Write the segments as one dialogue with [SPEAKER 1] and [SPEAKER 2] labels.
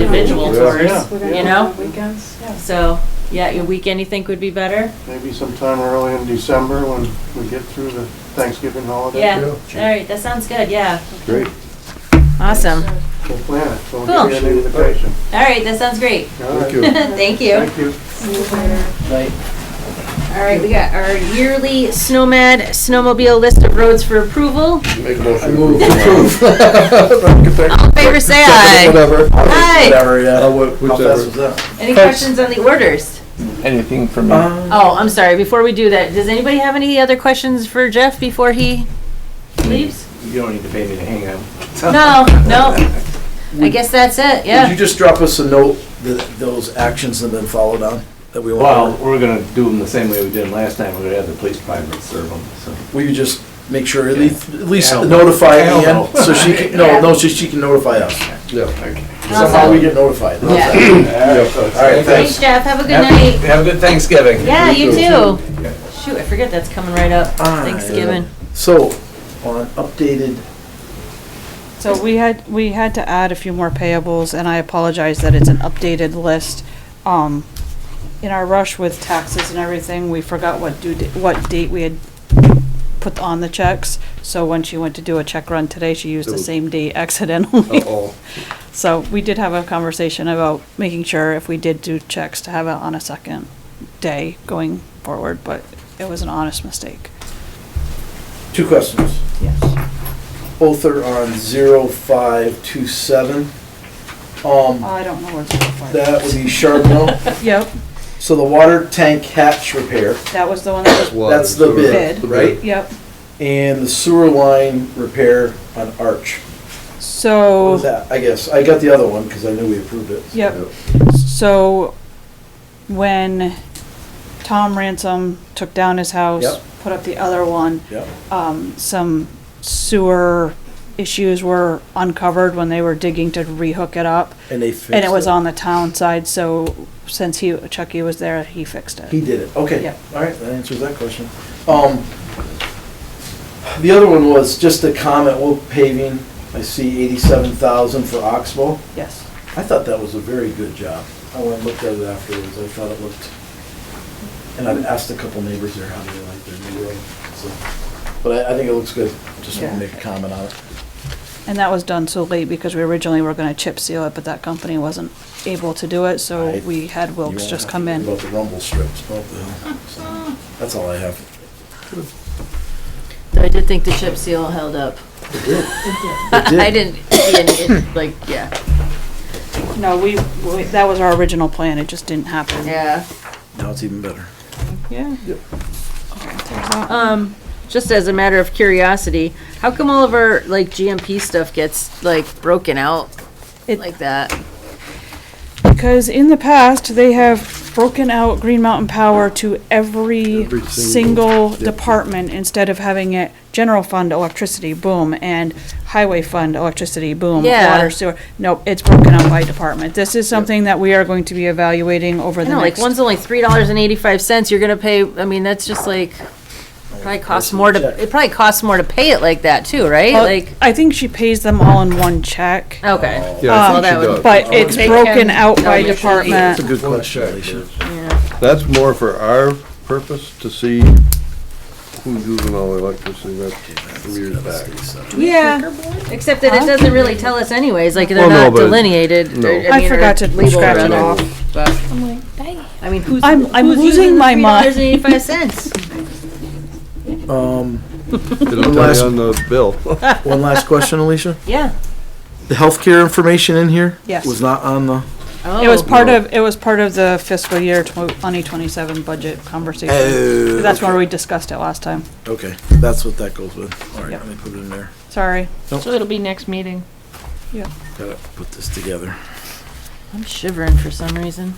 [SPEAKER 1] individual
[SPEAKER 2] Yeah.
[SPEAKER 1] tours,
[SPEAKER 2] Yeah.
[SPEAKER 1] you know?
[SPEAKER 3] Weekends, yeah.
[SPEAKER 1] So, yeah, your weekend, you think would be better?
[SPEAKER 2] Maybe sometime early in December when we get through the Thanksgiving holiday.
[SPEAKER 1] Yeah, all
[SPEAKER 4] Sure.
[SPEAKER 1] right, that sounds good, yeah,
[SPEAKER 4] Great.
[SPEAKER 1] awesome.
[SPEAKER 2] We'll plan it, so
[SPEAKER 1] Cool.
[SPEAKER 2] we'll give you an invitation.
[SPEAKER 1] All right, that sounds great.
[SPEAKER 2] All right.
[SPEAKER 4] you.
[SPEAKER 1] Thank you.
[SPEAKER 2] Thank you.
[SPEAKER 1] All right, we got our yearly SNOMED snowmobile list of roads for approval.
[SPEAKER 4] Make a motion. Approve.
[SPEAKER 1] All in favor, say aye.
[SPEAKER 4] Whatever.
[SPEAKER 1] Aye.
[SPEAKER 5] Whatever,
[SPEAKER 4] Uh,
[SPEAKER 5] yeah.
[SPEAKER 4] wha-
[SPEAKER 5] How fast was
[SPEAKER 4] Whichever.
[SPEAKER 5] that?
[SPEAKER 1] Any questions on the orders?
[SPEAKER 6] Anything from me?
[SPEAKER 5] Uh,
[SPEAKER 1] Oh, I'm sorry, before we do that, does anybody have any other questions for Jeff before he leaves?
[SPEAKER 6] You don't need to pay me to hang out.
[SPEAKER 1] No, no. I guess that's it,
[SPEAKER 5] Would you
[SPEAKER 1] yeah.
[SPEAKER 5] just drop us a note that those actions have been followed on, that we
[SPEAKER 6] Well,
[SPEAKER 5] want?
[SPEAKER 6] we're gonna do them the same way we did them last time. We're gonna have the police department serve them, so.
[SPEAKER 5] Will you just make sure, at least, at least
[SPEAKER 6] Hell.
[SPEAKER 5] notify
[SPEAKER 6] Hell
[SPEAKER 5] Ian,
[SPEAKER 6] no.
[SPEAKER 5] so she can, no, no, so she can notify us.
[SPEAKER 4] Yeah.
[SPEAKER 5] Somehow we get notified.
[SPEAKER 1] Yeah.
[SPEAKER 6] All right,
[SPEAKER 1] Thanks, Jeff, have a good night.
[SPEAKER 6] Have a good Thanksgiving.
[SPEAKER 1] Yeah, you too. Shoot, I forget that's coming right up,
[SPEAKER 5] Ah, yeah.
[SPEAKER 1] Thanksgiving.
[SPEAKER 5] So, on updated,
[SPEAKER 3] So we had, we had to add a few more payables, and I apologize that it's an updated list. Um, in our rush with taxes and everything, we forgot what due, da- what date we had put on the checks. So when she went to do a check run today, she used the same date accidentally.
[SPEAKER 4] Uh-oh.
[SPEAKER 3] So we did have a conversation about making sure if we did do checks to have it on a second day going forward, but it was an honest mistake.
[SPEAKER 5] two questions.
[SPEAKER 3] Yes.
[SPEAKER 5] Both are on zero five two seven. Um,
[SPEAKER 3] I don't know where to find
[SPEAKER 5] that would be Charbonneau.
[SPEAKER 3] Yep,
[SPEAKER 5] So the water tank hatch repair,
[SPEAKER 3] that was the one that was,
[SPEAKER 5] that's the
[SPEAKER 4] Water, sewer.
[SPEAKER 5] bid,
[SPEAKER 3] Bid.
[SPEAKER 5] right?
[SPEAKER 3] yep.
[SPEAKER 5] And the sewer line repair on Arch. What was
[SPEAKER 3] So,
[SPEAKER 5] that? I guess, I got the other one because I knew we approved it.
[SPEAKER 3] yep, so when Tom Ransom took down his house,
[SPEAKER 5] Yep.
[SPEAKER 3] put up the other one,
[SPEAKER 5] Yep.
[SPEAKER 3] um, some sewer issues were uncovered when they were digging to rehook it up.
[SPEAKER 5] And they fixed it.
[SPEAKER 3] And it was on the town side, so since he, Chucky was there, he fixed
[SPEAKER 5] He
[SPEAKER 3] it.
[SPEAKER 5] did it, okay.
[SPEAKER 3] Yep.
[SPEAKER 5] All right, that answers that question. Um, the other one was just a comment, well, paving, I see eighty-seven thousand for Oxbow.
[SPEAKER 3] Yes,
[SPEAKER 5] I thought that was a very good job. I went and looked at it afterwards, I thought it looked, and I've asked a couple neighbors there how they like their new road, so. But I, I think it looks good, just
[SPEAKER 3] Yeah.
[SPEAKER 5] want to make a comment on it.
[SPEAKER 3] and that was done so late because we originally were gonna chip seal it, but that company wasn't able to do it, so
[SPEAKER 5] Right.
[SPEAKER 3] we had
[SPEAKER 5] You
[SPEAKER 3] Wilks
[SPEAKER 5] won't
[SPEAKER 3] just
[SPEAKER 5] have
[SPEAKER 3] come
[SPEAKER 5] to worry
[SPEAKER 3] in.
[SPEAKER 5] About the rumble strips, oh, the hell. So, that's all I have.
[SPEAKER 1] Though I did think the chip seal held up. I didn't, see any, like, yeah.
[SPEAKER 3] No, we, we- that was our original plan, it just didn't happen.
[SPEAKER 1] Yeah.
[SPEAKER 5] Now it's even better.
[SPEAKER 3] Yeah.
[SPEAKER 1] Um, just as a matter of curiosity, how come all of our like GMP stuff gets like broken out
[SPEAKER 3] It-
[SPEAKER 1] like that?
[SPEAKER 3] Because in the past, they have broken out Green Mountain Power to every
[SPEAKER 4] Every single-
[SPEAKER 3] single department instead of having it general fund electricity, boom, and highway fund electricity, boom,
[SPEAKER 1] Yeah.
[SPEAKER 3] water sewer. No, it's broken out by department. This is something that we are going to be evaluating over
[SPEAKER 1] I
[SPEAKER 3] the
[SPEAKER 1] know, like
[SPEAKER 3] next.
[SPEAKER 1] one's only three dollars and eighty-five cents. You're gonna pay. I mean, that's just like probably costs more to. It probably costs more to pay it like that too, right?
[SPEAKER 3] Well,
[SPEAKER 1] like
[SPEAKER 3] I think she pays them all in one check,
[SPEAKER 1] okay,
[SPEAKER 4] Yeah, I
[SPEAKER 3] Um,
[SPEAKER 4] think she
[SPEAKER 1] Oh, that would-
[SPEAKER 4] does.
[SPEAKER 3] but it's
[SPEAKER 1] They
[SPEAKER 3] broken
[SPEAKER 1] can-
[SPEAKER 3] out
[SPEAKER 1] no,
[SPEAKER 3] by
[SPEAKER 1] usually-
[SPEAKER 3] department.
[SPEAKER 4] That's a good
[SPEAKER 5] Well,
[SPEAKER 4] question.
[SPEAKER 5] check,
[SPEAKER 4] Alicia.
[SPEAKER 1] yeah.
[SPEAKER 4] That's more for our purpose to see who's using all the electricity. That's from years back.
[SPEAKER 1] yeah. Except that it doesn't really tell us anyways. Like they're
[SPEAKER 4] Well, no,
[SPEAKER 1] not
[SPEAKER 4] but-
[SPEAKER 1] delineated.
[SPEAKER 4] no.
[SPEAKER 1] or-
[SPEAKER 3] I
[SPEAKER 1] mean, or
[SPEAKER 3] forgot to
[SPEAKER 1] labeled
[SPEAKER 3] scratch it
[SPEAKER 1] rather.
[SPEAKER 3] off.
[SPEAKER 1] I mean, who's
[SPEAKER 3] I'm- I'm
[SPEAKER 1] who's
[SPEAKER 3] losing
[SPEAKER 1] using
[SPEAKER 3] my mind.
[SPEAKER 1] Dollars and eighty-five cents.
[SPEAKER 5] Um,
[SPEAKER 4] It'll tell
[SPEAKER 5] Last-
[SPEAKER 4] you on the bill.
[SPEAKER 5] one last question, Alicia.
[SPEAKER 1] Yeah.
[SPEAKER 5] The healthcare information in here?
[SPEAKER 3] Yes.
[SPEAKER 5] Was not on the,
[SPEAKER 1] Oh.
[SPEAKER 3] It was part of, it was part of the fiscal year twenty twenty-seven budget conversation.
[SPEAKER 5] oh,
[SPEAKER 3] That's where we discussed it last time.
[SPEAKER 5] okay, that's what that goes with. All right,
[SPEAKER 3] Yep.
[SPEAKER 5] let me put it in there,
[SPEAKER 3] Sorry.
[SPEAKER 1] So it'll be next meeting.
[SPEAKER 5] gotta put this together.
[SPEAKER 1] I'm shivering for some reason.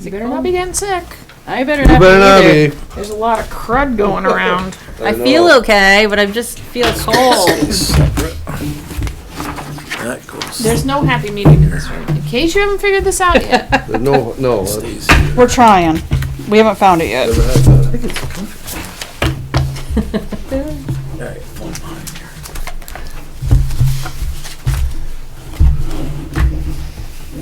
[SPEAKER 7] You better not be getting sick. I better
[SPEAKER 4] You
[SPEAKER 7] not be
[SPEAKER 4] better not
[SPEAKER 7] either.
[SPEAKER 4] be.
[SPEAKER 7] There's a lot of crud going around.
[SPEAKER 1] I feel okay, but I just feel cold.
[SPEAKER 5] That goes,
[SPEAKER 7] There's no happy medium in this room. In case you haven't figured this out yet,
[SPEAKER 4] No, no. that's-
[SPEAKER 5] stays here.
[SPEAKER 3] We're trying. We haven't found it yet.
[SPEAKER 4] never had that.